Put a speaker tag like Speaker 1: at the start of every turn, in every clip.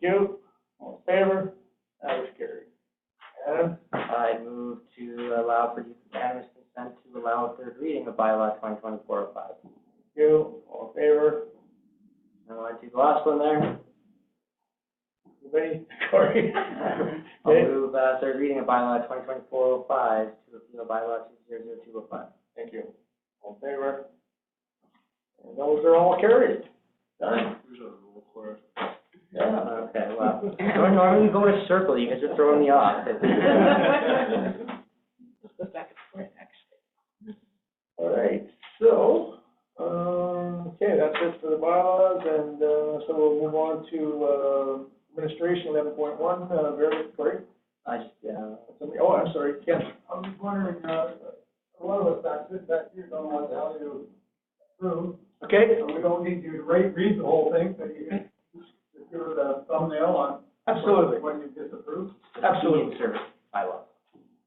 Speaker 1: you. All in favor? That was carried. Adam?
Speaker 2: I move to allow for unanimous consent to allow a third reading of bylaw twenty twenty-four oh five.
Speaker 1: You, all in favor?
Speaker 2: I want to do the last one there.
Speaker 1: Anybody? Corey?
Speaker 2: I'll move, uh, third reading of bylaw twenty twenty-four oh five to appeal bylaw two zero zero two oh five.
Speaker 1: Thank you. All in favor? And those are all carried. Done. Yeah.
Speaker 2: Okay, well, Nor- normally you go in a circle, you guys are throwing me off.
Speaker 1: All right, so, um,
Speaker 3: uh,
Speaker 1: okay, that's it for the bylaws, and, uh, so we'll move on to, uh, administration eleven point one, uh, very, Cory?
Speaker 2: I just, uh, yeah.
Speaker 1: Somebody, oh, I'm sorry, Ken.
Speaker 3: I was wondering, uh, a lot of us back sit back here don't want to tell you through,
Speaker 1: Okay,
Speaker 3: so we don't need you to read, read the whole thing, but you can just give it a thumbnail on.
Speaker 1: absolutely,
Speaker 3: When you disapprove.
Speaker 1: absolutely.
Speaker 2: Bylaw.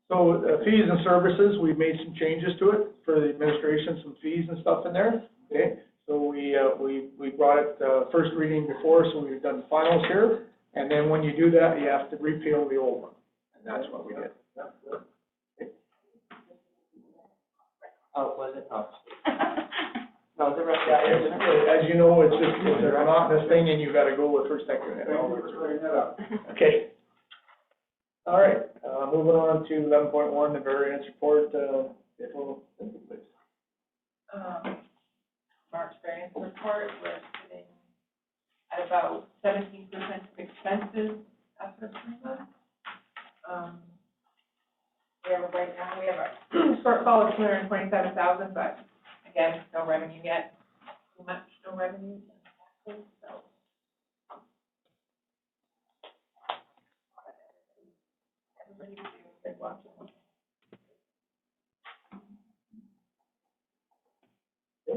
Speaker 1: So uh, fees and services, we've made some changes to it for the administration, some fees and stuff in there, okay? So we, uh, we, we brought it, uh, first reading before, so we've done finals here. And then when you do that, you have to repeal the old one, and that's what we did.
Speaker 2: Oh, was it? Oh. No, it's a rest.
Speaker 1: Yeah, it's- As you know, it's just, it's a monotonous thing and you've got to go with first, second, and all
Speaker 3: Thank you
Speaker 1: that.
Speaker 3: for bringing that up.
Speaker 1: Okay. All right, uh, moving on to eleven point one, the variance report, uh, if we'll, please.
Speaker 4: um, March variance report, we're sitting at about seventeen percent of expenses after approval. Um, we have, right now, we have a shortfall of two hundred and twenty-seven thousand, but again, no revenue yet. Too much, no revenue, so. Everybody's been watching.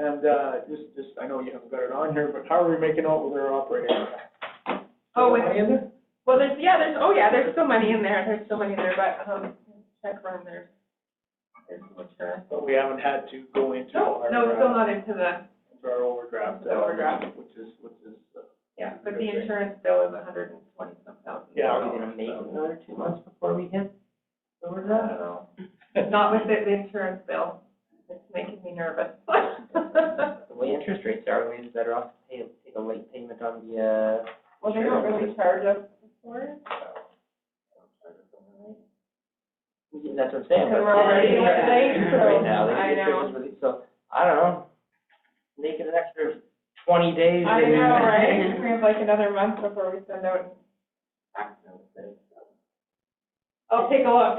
Speaker 1: And, uh, just, just, I know you haven't got it on here, but how are we making out with our operating?
Speaker 4: Oh,
Speaker 1: Is there money
Speaker 4: and-
Speaker 1: in there?
Speaker 4: Well, there's, yeah, there's, oh yeah, there's still money in there, there's still money in there, but, um, check room, there's, there's much, uh,
Speaker 1: But we haven't had to go into
Speaker 4: no,
Speaker 1: our,
Speaker 4: no, it's still
Speaker 1: uh,
Speaker 4: not into the,
Speaker 1: into our overdraft.
Speaker 4: The overdraft.
Speaker 1: uh, Which is, which is, uh,
Speaker 4: yeah, but the insurance bill is a hundred and twenty some thousand.
Speaker 1: Yeah,
Speaker 2: Are we gonna make it another two months before we hit
Speaker 4: I don't know,
Speaker 1: uh,
Speaker 4: not with the, the insurance bill, it's making me nervous.
Speaker 2: the
Speaker 4: Well,
Speaker 2: way interest rates are, we'd be better off to pay, take a late payment on the, uh,
Speaker 4: they don't really charge us for it,
Speaker 2: yeah, that's what I'm saying.
Speaker 4: Because we're already
Speaker 2: but-
Speaker 4: late, so-
Speaker 2: Right now, the
Speaker 4: I
Speaker 2: interest
Speaker 4: know.
Speaker 2: is really- so, I don't know, make it an extra twenty days.
Speaker 4: I
Speaker 2: and-
Speaker 4: know, right, we have like another month before we send out tax notices, so. I'll take a look.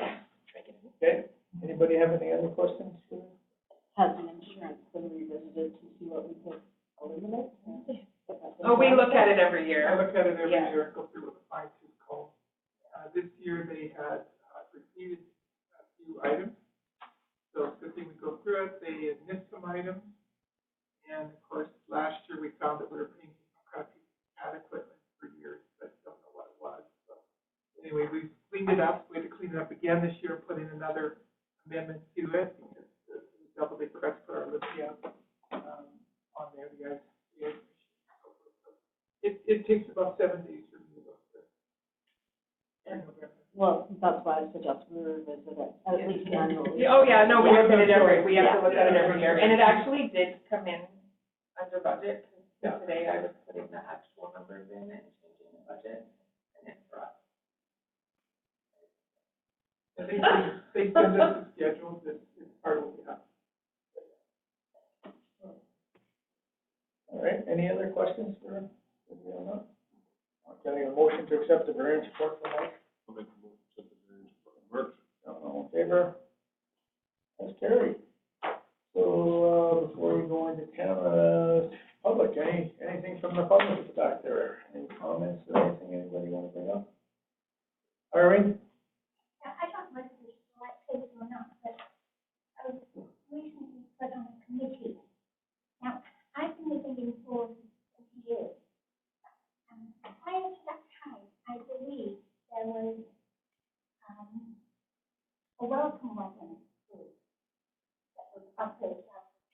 Speaker 1: Okay, anybody have any other questions?
Speaker 5: has an insurance been revisited to see what we could eliminate?
Speaker 4: Oh, we look at it every year.
Speaker 3: I look at it every
Speaker 5: Yeah.
Speaker 3: year, go through with a fine tooth comb. Uh, this year they had uh, repeated a few items. So the thing we go through it, they had missed some items. And of course, last year we found that we were paying crappy pad equipment for years, but don't know what it was. So Anyway, we cleaned it up, we had to clean it up again this year, put in another amendment to it. because the- we Double the press for our lithium, um, on there, you guys, you guys it, it takes about seven days for me to go through. And November.
Speaker 5: Well, that's why I suggest we revisit it, at least annually.
Speaker 4: Yeah, Oh, yeah, no, we
Speaker 3: Yeah,
Speaker 4: look at it every,
Speaker 3: sure.
Speaker 4: we have to look at it
Speaker 3: Yeah.
Speaker 4: every year, and it actually did come in under budget, 'cause
Speaker 3: Yeah.
Speaker 4: today I was putting the actual numbers in and changing the budget, and it brought.
Speaker 3: And they, send- they send us the schedule, this is part of what we have.
Speaker 1: All right, any other questions for, for me on that? I'm getting a motion to accept the variance report from Mike. All in favor? That's carried. So, uh, before we go into camera, public, any, anything from the public back there? Any comments, or anything anybody wanna bring up? Irene?